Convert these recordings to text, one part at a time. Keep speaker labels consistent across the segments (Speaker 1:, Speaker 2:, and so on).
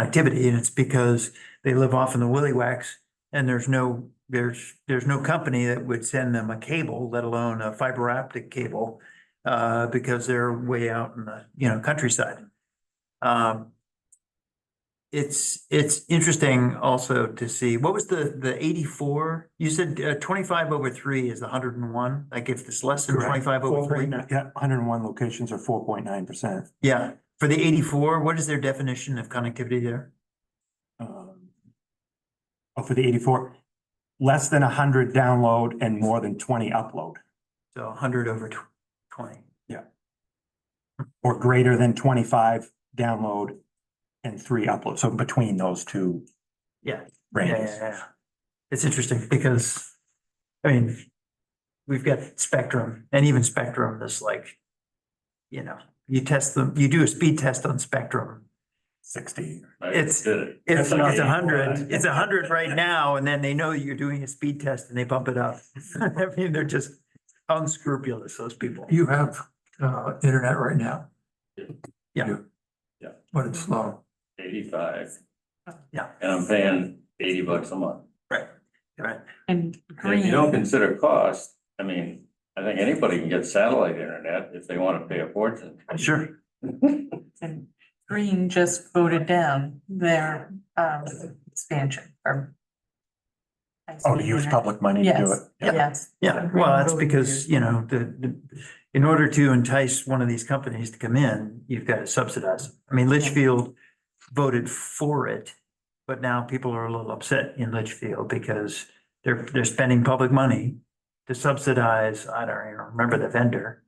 Speaker 1: connectivity and it's because they live off in the willy wax and there's no, there's, there's no company that would send them a cable, let alone a fiber optic cable, uh, because they're way out in the, you know, countryside. Um, it's, it's interesting also to see, what was the, the eighty-four? You said uh, twenty-five over three is the hundred and one, like if it's less than
Speaker 2: Correct.
Speaker 1: twenty-five over
Speaker 2: Four
Speaker 1: three?
Speaker 2: point nine, yeah, hundred and one locations are four point nine percent.
Speaker 1: Yeah, for the eighty-four, what is their definition of connectivity there?
Speaker 2: Oh, for the eighty-four, less than hundred download and more than twenty upload,
Speaker 1: So hundred over tw- twenty.
Speaker 2: or greater than twenty-five download and three upload, so between those two
Speaker 1: Yeah, yeah, yeah,
Speaker 2: ranges.
Speaker 1: yeah. It's interesting because, I mean, we've got Spectrum and even Spectrum is like, you know, you test them, you do a speed test on Spectrum.
Speaker 2: Sixty.
Speaker 1: It's-
Speaker 3: Did it.
Speaker 1: It's
Speaker 2: That's like
Speaker 1: it's a
Speaker 2: 84.
Speaker 1: hundred, it's a hundred right now, and then they know you're doing a speed test and they bump it up. I mean, they're just unscrupulous, those people.
Speaker 4: You have uh internet right now.
Speaker 1: Yeah.
Speaker 4: You-
Speaker 3: Yeah.
Speaker 4: But it's slow.
Speaker 3: Eighty-five.
Speaker 1: Yeah.
Speaker 3: And I'm paying eighty bucks a month.
Speaker 1: Right.
Speaker 5: And
Speaker 3: And if you don't
Speaker 5: green,
Speaker 3: consider cost, I mean, I think anybody can get satellite internet if they wanna pay a fortune.
Speaker 1: Sure.
Speaker 5: and green just voted down their um expansion or.
Speaker 2: Oh, to use public money to do it.
Speaker 5: Yes, yes.
Speaker 1: Yeah, well, that's because, you know, the, the, in order to entice one of these companies to come in, you've got to subsidize. them. I mean, Litchfield voted for it, but now people are a little upset in Litchfield because they're, they're spending public money to subsidize, I don't even remember the vendor,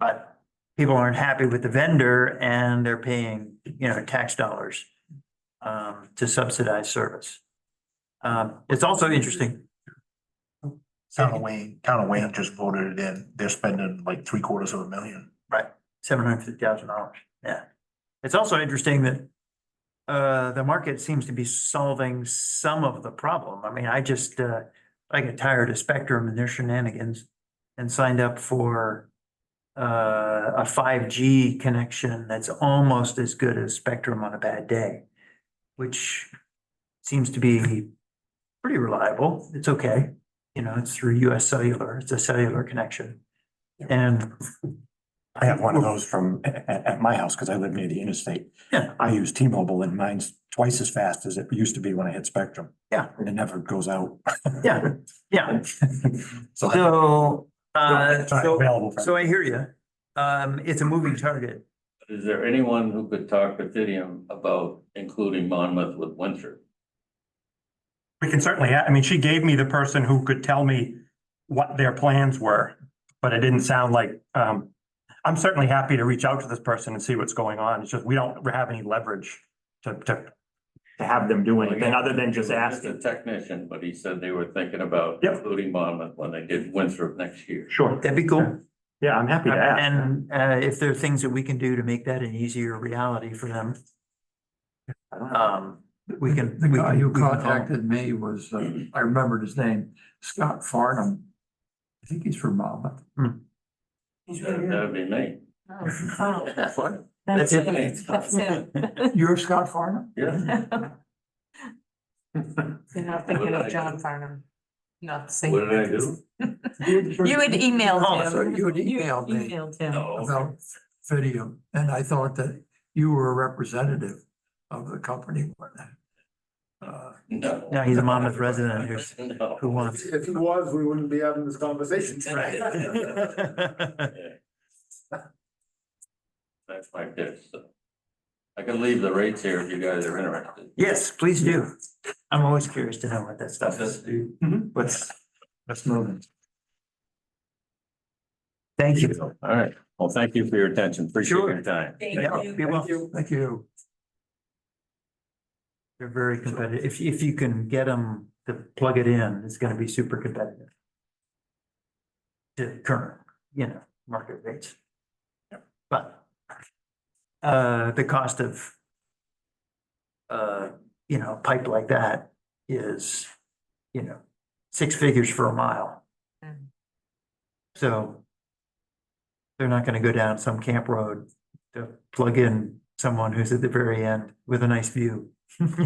Speaker 1: but people aren't happy with the vendor and they're paying, you know, tax dollars um, to subsidize service. Um, it's also interesting,
Speaker 6: Town of Wayne, Town of Wayne just voted it in. They're spending like three quarters of a million.
Speaker 1: seven hundred fifty thousand dollars, yeah. It's also interesting that uh, the market seems to be solving some of the problem. I mean, I just, uh, I get tired of Spectrum and their shenanigans and signed up for uh, a five G connection that's almost as good as Spectrum on a bad day, which seems to be pretty reliable. It's okay. You know, it's through US Cellular. It's a cellular connection. And
Speaker 2: I have one of those from, at, at my house, because I live near the interstate.
Speaker 1: Yeah.
Speaker 2: I use T-Mobile and mine's twice as fast as it used to be when I hit Spectrum.
Speaker 1: Yeah.
Speaker 2: And it never goes out.
Speaker 1: Yeah, yeah,
Speaker 2: So. I-
Speaker 1: So, uh,
Speaker 2: It's not
Speaker 1: so,
Speaker 2: available for-
Speaker 1: so I hear you. Um, it's a moving target.
Speaker 3: Is there anyone who could talk with Didium about including Monmouth with Winthrop?
Speaker 2: We can certainly, ha- I mean, she gave me the person who could tell me what their plans were, but it didn't sound like, um, I'm certainly happy to reach out to this person and see what's going on. It's just, we don't have any leverage to, to to have them do anything other than just
Speaker 3: He's
Speaker 2: asking.
Speaker 3: a technician, but he said they were thinking about
Speaker 2: Yep.
Speaker 3: including Monmouth when they did Winthrop next year.
Speaker 2: Sure.
Speaker 1: That'd be cool.
Speaker 2: Yeah, I'm happy to ask.
Speaker 1: And, uh, if there are things that we can do to make that an easier reality for them,
Speaker 2: I don't know.
Speaker 1: um, we can.
Speaker 4: The
Speaker 1: we
Speaker 4: guy
Speaker 1: can-
Speaker 4: who
Speaker 1: we can call him.
Speaker 4: Uh, contacted me was, uh, I remembered his name, Scott Farnham. I think he's from uh, Monmouth.
Speaker 3: That- That'd be me.
Speaker 1: That's
Speaker 5: That's
Speaker 1: it.
Speaker 5: him, that's him.
Speaker 4: You're Scott Farnham?
Speaker 3: Yeah.
Speaker 5: You're not
Speaker 3: What
Speaker 5: thinking
Speaker 3: did I
Speaker 5: of
Speaker 3: do?
Speaker 5: John Farnham, not the same.
Speaker 3: What did I do?
Speaker 5: You had
Speaker 1: Oh,
Speaker 5: emailed
Speaker 4: so
Speaker 5: him.
Speaker 4: you had emailed me.
Speaker 5: Emailed him.
Speaker 3: No.
Speaker 4: About Fidium, and I thought that you were a representative of the company. Uh,
Speaker 3: No.
Speaker 1: No, he's a Monmouth resident who's,
Speaker 3: No.
Speaker 1: who wants.
Speaker 7: If he was, we wouldn't be having this conversation
Speaker 1: Right.
Speaker 7: tonight.
Speaker 3: Yeah. That's my pitch, so. I can leave the rates here if you guys are interested.
Speaker 1: Yes, please do. I'm always curious to know what that stuff is. Mm-hmm.
Speaker 2: Let's, let's move it.
Speaker 1: Thank you.
Speaker 3: All right, well, thank you for your attention, appreciate
Speaker 1: Sure.
Speaker 3: your time.
Speaker 1: Yeah, be well.
Speaker 4: Thank you.
Speaker 1: They're very competitive. If, if you can get them to plug it in, it's gonna be super competitive. To current, you know, market rates. But, uh, the cost of, uh, you know, a pipe like that is, you know, six figures for a mile.
Speaker 5: Mm.
Speaker 1: So they're not gonna go down some camp road to plug in someone who's at the very end with a nice view.